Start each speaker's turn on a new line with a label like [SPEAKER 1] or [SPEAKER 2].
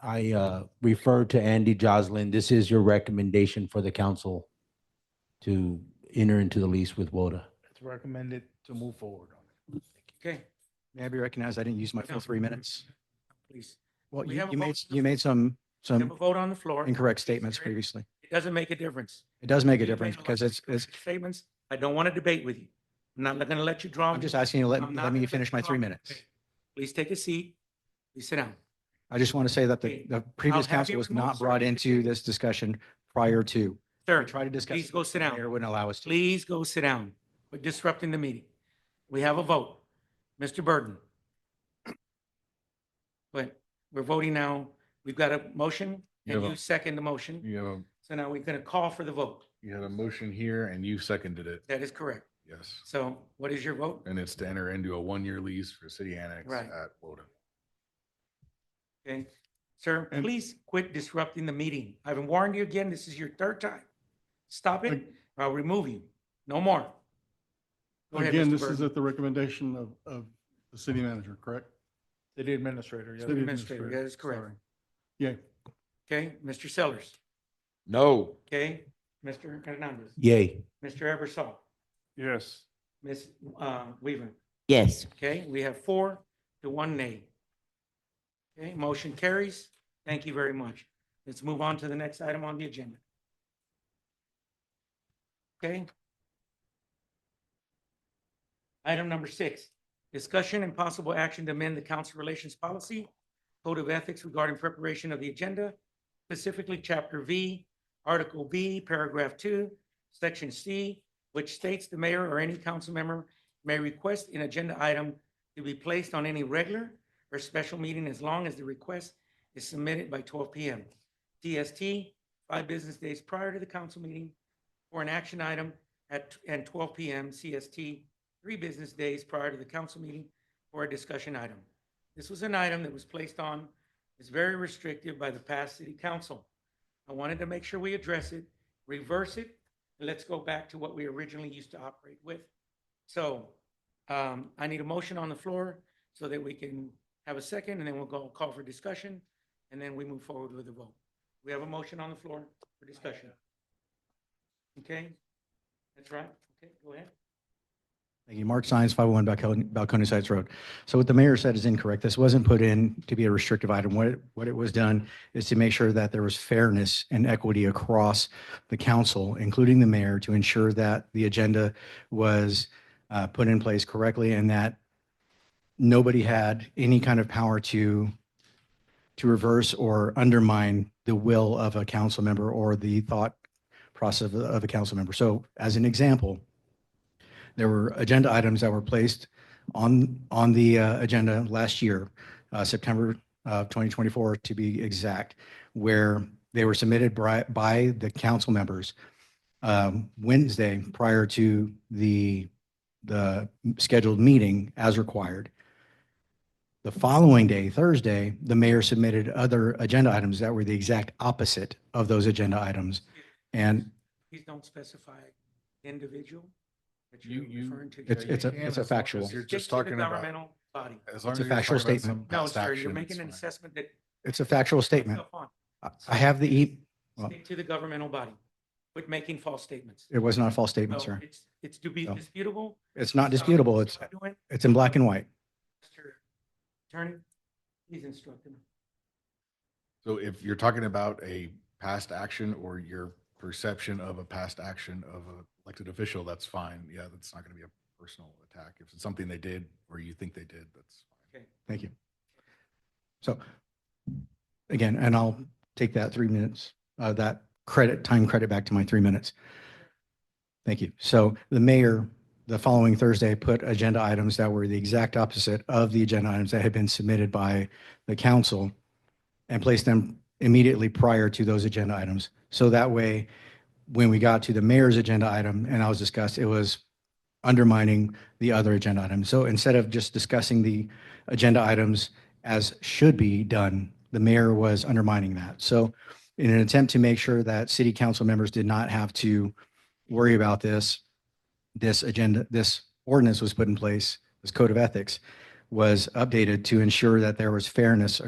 [SPEAKER 1] I uh, referred to Andy Joslin. This is your recommendation for the council to enter into the lease with WODA.
[SPEAKER 2] It's recommended to move forward on
[SPEAKER 3] Okay,
[SPEAKER 4] May I be recognized? I didn't use my full three minutes.
[SPEAKER 3] please.
[SPEAKER 4] Well,
[SPEAKER 3] We
[SPEAKER 4] you
[SPEAKER 3] have a
[SPEAKER 4] you
[SPEAKER 3] vote on
[SPEAKER 4] made,
[SPEAKER 3] the floor.
[SPEAKER 4] you made some,
[SPEAKER 3] We have a
[SPEAKER 4] some
[SPEAKER 3] vote on the floor.
[SPEAKER 4] incorrect statements
[SPEAKER 3] Eric,
[SPEAKER 4] previously.
[SPEAKER 3] It doesn't make a difference.
[SPEAKER 4] It does make a
[SPEAKER 3] You've made
[SPEAKER 4] difference
[SPEAKER 3] lot
[SPEAKER 4] because
[SPEAKER 3] of
[SPEAKER 4] it's, it's,
[SPEAKER 3] incorrect Statements. I don't want to debate with you. I'm not going to let you drum.
[SPEAKER 4] I'm just asking you to
[SPEAKER 3] I'm
[SPEAKER 4] let,
[SPEAKER 3] not
[SPEAKER 4] let me
[SPEAKER 3] gonna
[SPEAKER 4] finish my three
[SPEAKER 3] drum.
[SPEAKER 4] minutes.
[SPEAKER 3] Please take a seat. Please sit down.
[SPEAKER 4] I just want to say that the,
[SPEAKER 3] Okay.
[SPEAKER 4] the previous
[SPEAKER 3] I'll have
[SPEAKER 4] council
[SPEAKER 3] you
[SPEAKER 4] was
[SPEAKER 3] removed,
[SPEAKER 4] not
[SPEAKER 3] sir.
[SPEAKER 4] brought into this discussion prior to. We
[SPEAKER 3] Sir,
[SPEAKER 4] tried to discuss.
[SPEAKER 3] please
[SPEAKER 4] it,
[SPEAKER 3] go sit
[SPEAKER 4] the
[SPEAKER 3] down.
[SPEAKER 4] Mayor wouldn't allow us to.
[SPEAKER 3] please go sit down. We're disrupting the meeting. We have a vote. Mr. Burden. But we're voting now. We've got a motion and
[SPEAKER 5] Yeah.
[SPEAKER 3] you second the motion.
[SPEAKER 5] You have a,
[SPEAKER 3] So now we're going to call for the vote.
[SPEAKER 5] you had a motion here and you seconded it,
[SPEAKER 3] That is correct.
[SPEAKER 5] yes.
[SPEAKER 3] So what is your vote?
[SPEAKER 5] And it's to enter into a one-year lease for city annex
[SPEAKER 3] Right.
[SPEAKER 5] at Woden.
[SPEAKER 3] Okay, sir,
[SPEAKER 2] And-
[SPEAKER 3] please quit disrupting the meeting. I've warned you again. This is your third time. Stop it. or I'll remove you. No more. Go
[SPEAKER 6] Well,
[SPEAKER 3] ahead,
[SPEAKER 6] Again,
[SPEAKER 3] Mr.
[SPEAKER 6] this is
[SPEAKER 3] Burton.
[SPEAKER 6] at the recommendation of, of the city manager, correct?
[SPEAKER 2] it. City administrator, yes.
[SPEAKER 6] City
[SPEAKER 3] Administrator, that is correct.
[SPEAKER 6] sorry. Yeah,
[SPEAKER 3] Okay, Mr. Sellers,
[SPEAKER 5] No.
[SPEAKER 3] okay, Mr. Hernandez,
[SPEAKER 1] Yay.
[SPEAKER 3] Mr. Eversol,
[SPEAKER 2] Yes.
[SPEAKER 3] Ms. uh, Weaver.
[SPEAKER 7] Yes.
[SPEAKER 3] Okay, we have four to one nay. Okay, motion carries. Thank you very much. Let's move on to the next item on the agenda. Okay. Item number six, discussion and possible action to amend the council relations policy, code of ethics regarding preparation of the agenda, specifically chapter V, article B, paragraph two, section C, which states the mayor or any council member may request an agenda item to be placed on any regular or special meeting as long as the request is submitted by twelve PM. DST, five business days prior to the council meeting for an action item at, and twelve PM. CST, three business days prior to the council meeting for a discussion item. This was an item that was placed on, is very restrictive by the past city council. I wanted to make sure we address it, reverse it, and let's go back to what we originally used to operate with. So um, I need a motion on the floor so that we can have a second, and then we'll go call for discussion, and then we move forward with the vote. We have a motion on the floor for discussion. Okay? That's right. Okay, go ahead.
[SPEAKER 4] Thank you. Mark oh Science, 501 Balcony- Balcony Heights Road. So what the mayor said is incorrect. This wasn't put in to be a restrictive item. What, it- what it was done is to make sure that there was fairness and equity across the council, including the mayor, to ensure that the agenda was uh, put in place correctly and that nobody had any kind of power to, to reverse or undermine the will of a council member or the thought process of a- of a council member. So as an example, there were agenda items that were placed on, on the uh, agenda last year, uh, September of 2024 to be exact, where they were submitted by, by the council members um, Wednesday prior to the, the scheduled meeting as required. The following day, Thursday, the mayor submitted other agenda items that were the exact opposite of those agenda items. And
[SPEAKER 3] Please don't specify individual that
[SPEAKER 5] You-
[SPEAKER 3] you're
[SPEAKER 5] you-
[SPEAKER 3] referring to.
[SPEAKER 4] It's-
[SPEAKER 3] Jerry.
[SPEAKER 4] it's a-
[SPEAKER 3] Stick
[SPEAKER 4] it's a factual-
[SPEAKER 5] You're
[SPEAKER 3] to
[SPEAKER 5] just
[SPEAKER 3] the
[SPEAKER 5] talking about.
[SPEAKER 3] Governmental body.
[SPEAKER 5] as long
[SPEAKER 4] It's a
[SPEAKER 5] as you're
[SPEAKER 4] factual
[SPEAKER 5] talking about
[SPEAKER 4] statement.
[SPEAKER 5] some
[SPEAKER 3] No,
[SPEAKER 5] past
[SPEAKER 3] sir, you're
[SPEAKER 5] action,
[SPEAKER 3] making an
[SPEAKER 5] it's fine.
[SPEAKER 3] assessment that.
[SPEAKER 4] it's a factual statement.
[SPEAKER 3] Stuff on.
[SPEAKER 4] I- I have the, e- well-
[SPEAKER 3] Stick to the governmental body, quit making false statements.
[SPEAKER 4] it was not a false statement,
[SPEAKER 3] So
[SPEAKER 4] sir.
[SPEAKER 3] It's, it's to be
[SPEAKER 4] No.
[SPEAKER 3] disputable.
[SPEAKER 4] It's not disputable. It's,
[SPEAKER 3] Stop doing it.
[SPEAKER 4] it's in black and white.
[SPEAKER 3] Mr. Attorney, please instruct him.
[SPEAKER 5] So if you're talking about a past action or your perception of a past action of an elected official, that's fine. Yeah, that's not going to be a personal attack. If it's something they did or you think they did, that's fine.
[SPEAKER 4] Thank you. So again, and I'll take that three minutes, uh, that credit, time credit back to my three minutes. Thank you. So the mayor, the following Thursday, put agenda items that were the exact opposite of the agenda items that had been submitted by the council and placed them immediately prior to those agenda items. So that way, when we got to the mayor's agenda item and I was discussed, it was undermining the other agenda item. So instead of just discussing the agenda items as should be done. The mayor was undermining that. So in an attempt to make sure that city council members did not have to worry about this, this agenda, this ordinance was put in place, this code of ethics was updated to ensure that there was fairness